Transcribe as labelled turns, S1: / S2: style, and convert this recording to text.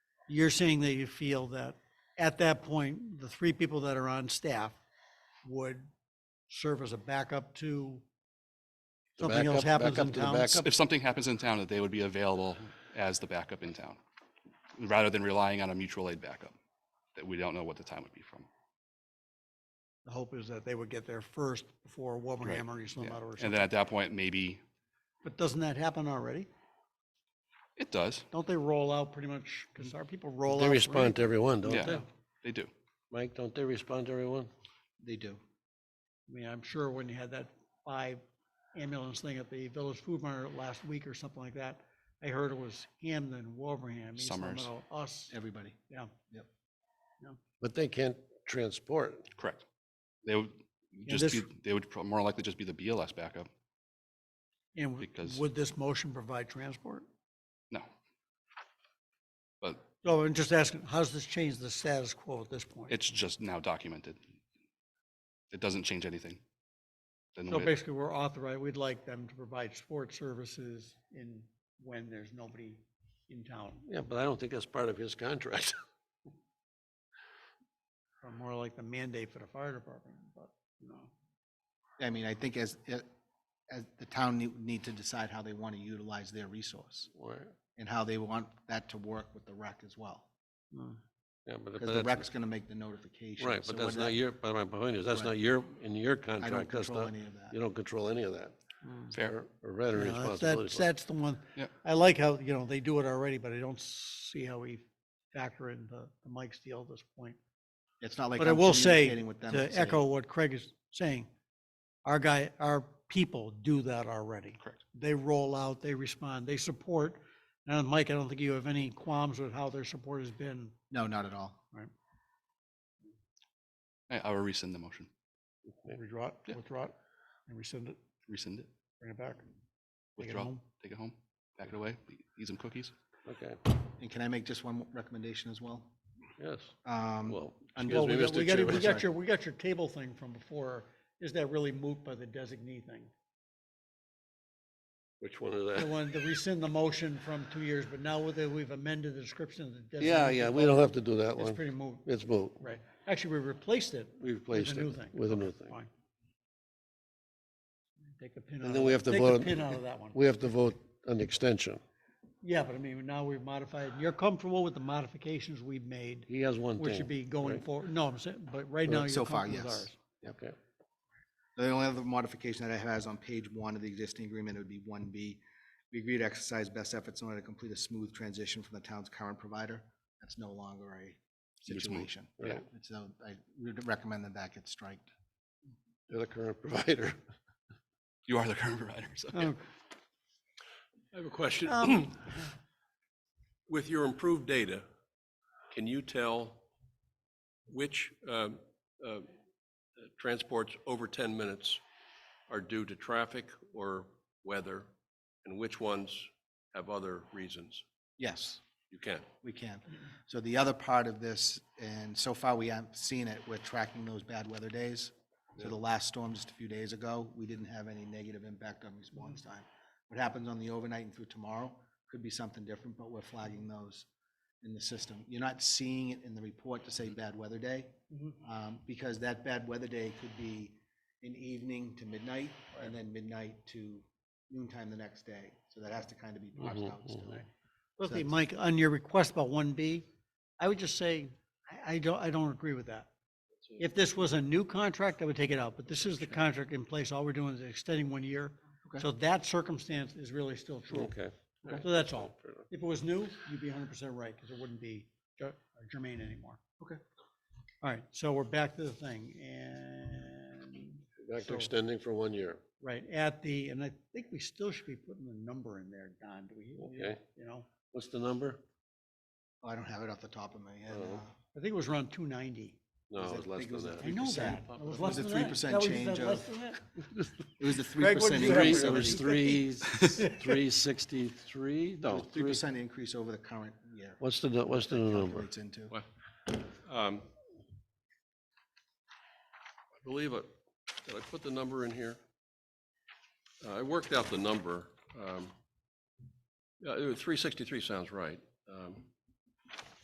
S1: You're saying that you feel that at that point, the three people that are on staff would serve as a backup to
S2: The
S1: something else
S2: backup-
S1: happens in
S2: backup to the
S1: town?
S2: backup.
S3: If something happens in town, that they would be available as the backup in town, rather than relying on a mutual aid backup that we don't know what the time would be from.
S1: The hope is that they would get there first before Wilbraham or East
S3: Yeah.
S1: Lametta or
S3: And
S1: something.
S3: then at that point, maybe
S1: But doesn't that happen already?
S3: it does.
S1: Don't they roll out pretty much, because our people roll out?
S2: They
S1: for
S2: respond to everyone, don't
S3: Yeah.
S2: they?
S3: They do.
S2: Mike, don't they respond to everyone?
S1: every- They do. I mean, I'm sure when you had that five ambulance thing at the Village Food Mart last week or something like that, I heard it was Hamden, Wilbraham, East
S3: Summers.
S1: Lametta, us,
S4: everybody.
S1: yeah.
S2: But they can't transport.
S3: Correct. They would just
S1: this-
S3: be, they would pro- more likely just be the BLS backup.
S1: And w-
S3: Because-
S1: would this motion provide transport?
S3: No. But
S1: So I'm just asking, how does this change the status quo at this point?
S3: it's just now documented. It doesn't change anything. Then
S1: So
S3: we-
S1: basically, we're authorized, we'd like them to provide sports services in, when there's nobody in town,
S2: Yeah, but I don't think that's part of his contract.
S1: or more like the mandate for the fire department, but, you know.
S4: I mean, I think as, it- as the town need- need to decide how they want to utilize their resource
S2: Or-
S4: and how they want that to work with the rec as well.
S1: mm.
S2: Yeah, but
S4: Because the
S2: but
S4: rec's
S2: that's,
S4: going to make the notification.
S2: right,
S4: so
S2: but that's
S4: we're
S2: not your, but my point is, that's
S4: Right.
S2: not your, in your
S4: I don't
S2: contract, that's
S4: control
S2: not,
S4: any of
S2: you
S4: that.
S2: don't control any of that.
S3: fair.
S2: Or or
S1: Yeah,
S2: veteran
S1: that's-
S2: responsibility.
S1: That's, that's the one.
S3: Yeah.
S1: I like how, you know, they do it already, but I don't see how we factor in the the Mike's deal at this point.
S4: It's not like
S1: But I
S4: I'm
S1: will say,
S4: communicating with them.
S1: to
S4: and saying,
S1: echo what Craig is saying, our guy, our people do that already.
S3: Correct.
S1: They roll out, they respond, they support. And Mike, I don't think you have any qualms with how their support has been.
S4: No, not at all.
S3: I, I will rescind the motion,
S1: Withdraw
S3: Yeah.
S1: it, withdraw it, and rescind it,
S3: rescind it,
S1: bring it back. Take it
S3: withdraw,
S1: home.
S3: take it home, pack it away, e- eat some cookies.
S2: Okay,
S4: And can I make just one more recommendation as well?
S2: yes,
S4: Um,
S2: well,
S4: under-
S1: Well,
S2: me,
S1: we got-
S2: Mr.
S1: we got it- We
S2: Chairman.
S1: got your, we got your table thing from before. Is that really moot by the designee thing?
S2: which one is
S1: The
S2: that?
S1: one, to rescind the motion from two years, but now whether we've amended the description of the designee.
S2: Yeah, yeah, we don't have to do that
S1: It's
S2: one.
S1: pretty moot,
S2: It's moot.
S1: right. Actually, we replaced it
S2: We replaced
S1: new
S2: it
S1: thing.
S2: with a
S1: Okay,
S2: new thing.
S1: Fine. Take the pin out.
S2: And
S1: of
S2: then we
S1: that-
S2: have to
S1: take the
S2: vote.
S1: Pin out of that one.
S2: We have to vote an extension.
S1: Yeah, but I mean, now we've modified, you're comfortable with the modifications we've made,
S2: He has one thing.
S1: which should be going
S2: right?
S1: forward. No, I'm saying, but right now
S4: So
S1: you're
S4: far,
S1: comfortable with
S4: yes.
S1: ours.
S2: Okay,
S4: The only other modification that I have is on page one of the existing agreement, it would be one B. We agree to exercise best efforts in order to complete a smooth transition from the town's current provider. That's no longer a
S3: It's moot.
S4: situation.
S2: Yeah.
S4: And So I would recommend that that gets striked.
S2: you're the current provider.
S3: You are the current provider, so.
S1: Oh,
S5: I have a question.
S1: Um,
S5: With your improved data, can you tell which um, uh, transports over 10 minutes are due to traffic or weather, and which ones have other reasons?
S4: Yes,
S5: You can.
S4: we can. So the other part of this, and so far we haven't seen it, we're tracking those bad weather days. So the last storm just a few days ago, we didn't have any negative impact on response time. What happens on the overnight and through tomorrow could be something different, but we're flagging those in the system. You're not seeing it in the report to say bad weather day,
S1: mhm.
S4: um, because that bad weather day could be an evening to midnight, and then midnight to noontime the next day. So that has to kind of be parsed
S2: Mhm,
S4: out still.
S2: mhm.
S1: Listen, Mike, on your request about one B, I would just say, I, I don't, I don't agree with that. If this was a new contract, I would take it out, but this is the contract in place. All we're doing is extending one year.
S4: Okay.
S1: So that circumstance is really still true.
S2: Okay.
S1: So that's all.
S2: Fair enough.
S1: If it was new, you'd be hundred percent right, because it wouldn't be ger- germane anymore.
S4: Okay.
S1: All right, so we're back to the thing, and,
S2: Back
S1: So-
S2: to extending for one year.
S1: right, at the, and I think we still should be putting the number in there, Don, do we?
S2: Okay.
S1: You know,
S2: What's the number?
S4: Oh, I don't have it off the top of my head.
S2: Oh.
S4: uh,
S1: I think it was around two ninety.
S2: No,
S4: Was
S2: it
S4: it-
S2: was
S4: I
S2: less
S4: think it
S2: than
S4: was
S2: that.
S4: a
S1: I know that. It was
S4: It was
S1: less
S4: a
S1: than that.
S4: 3%
S1: That was-
S4: change
S1: that less
S4: of-
S1: than that?
S4: It was the three
S1: Greg, what'd
S4: percent
S1: you have
S2: Three,
S4: increase.
S1: for
S2: it
S4: over
S2: was
S4: the-
S2: three, three sixty-three, no,
S4: Three
S2: three.
S4: percent increase over the current year.
S2: What's the, nu- what's the number?
S4: Calculates into.
S5: What? Um, I believe it, did I put the number in here? Uh, I worked out the number. um, Yeah, it was 363 sounds right. Um,